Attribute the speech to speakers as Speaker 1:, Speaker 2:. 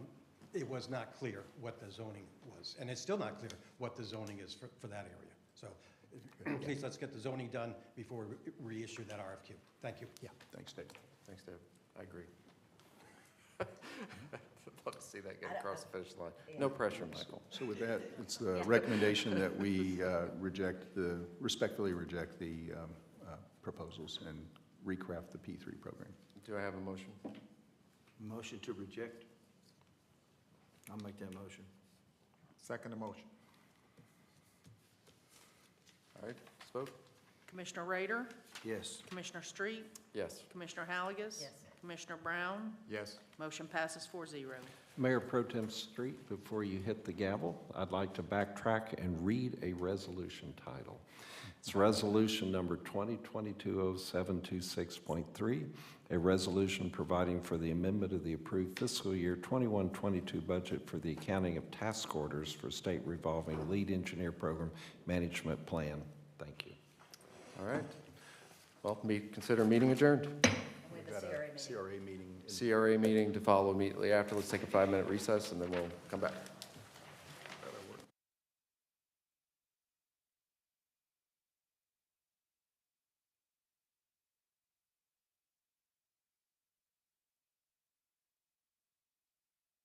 Speaker 1: it was not clear what the zoning was, and it's still not clear what the zoning is for, for that area. So if- please, let's get the zoning done before we reissue that RFQ. Thank you.
Speaker 2: Yeah, thanks, Dave.
Speaker 3: Thanks, Dave. I agree. I'd love to see that get across the finish line. No pressure, Michael.
Speaker 2: So with that, it's the recommendation that we uh, reject the, respectfully reject the um, uh, proposals and recraft the P3 program.
Speaker 3: Do I have a motion?
Speaker 4: Motion to reject? I'll make that motion.
Speaker 5: Second motion.
Speaker 3: All right, spoke?
Speaker 6: Commissioner Rader,
Speaker 4: Yes.
Speaker 6: Commissioner Street,
Speaker 3: Yes.
Speaker 6: Commissioner Halagus.
Speaker 7: Yes.
Speaker 6: Commissioner Brown,
Speaker 5: Yes.
Speaker 6: motion passes 4-0.
Speaker 8: Mayor Pro Tem Street, before you hit the gavel, I'd like to backtrack and read a resolution title. It's Resolution Number 2022-0726.3, a resolution providing for the amendment of the approved fiscal year 21-22 budget for the accounting of task orders for state revolving lead engineer program management plan. Thank you.
Speaker 3: All right. Well, me, consider meeting adjourned.
Speaker 7: With the CRA meeting.
Speaker 2: CRA meeting
Speaker 3: CRA meeting to follow immediately after. Let's take a five-minute recess, and then we'll come back.